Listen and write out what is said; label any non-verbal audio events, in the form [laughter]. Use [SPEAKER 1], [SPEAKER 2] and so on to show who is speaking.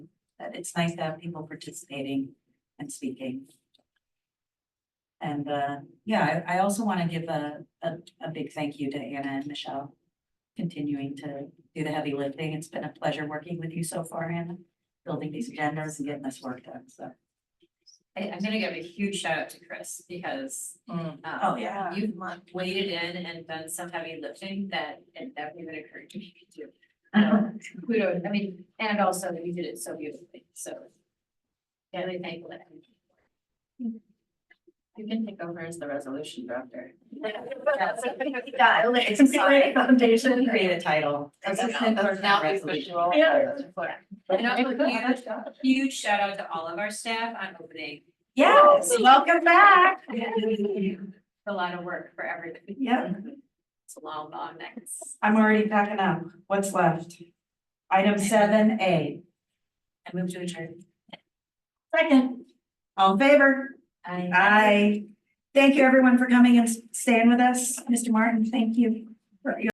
[SPEAKER 1] but it's nice to have people participating and speaking. And, uh, yeah, I, I also want to give a, a, a big thank you to Anna and Michelle. Continuing to do the heavy lifting. It's been a pleasure working with you so far, Anna, building these agendas and getting this work done, so.
[SPEAKER 2] I, I'm gonna give a huge shout out to Chris because. um,
[SPEAKER 1] Oh, yeah.
[SPEAKER 2] You've waded in and done some heavy lifting that it never even occurred to me to do.
[SPEAKER 1] [laughs]
[SPEAKER 2] Um, Kudos, I mean, and also that you did it so beautifully, so. Yeah, really thankful that. You can take over as the resolution director.
[SPEAKER 1] Yeah, uh, it's a great foundation. Create a title.
[SPEAKER 2] Assistant for
[SPEAKER 1] Now
[SPEAKER 2] now
[SPEAKER 1] it's
[SPEAKER 2] visual.
[SPEAKER 1] Yeah.
[SPEAKER 2] And also huge, huge shout out to all of our staff on opening.
[SPEAKER 1] Yes, welcome back.
[SPEAKER 2] It's A lot of work for everybody.
[SPEAKER 1] Yeah.
[SPEAKER 2] It's a long, long night.
[SPEAKER 1] I'm already packing up. What's left? Item seven A.
[SPEAKER 2] I move to adjourn.
[SPEAKER 1] Second. All in favor? Aye. Thank you, everyone, for coming and staying with us. Mr. Martin, thank you for your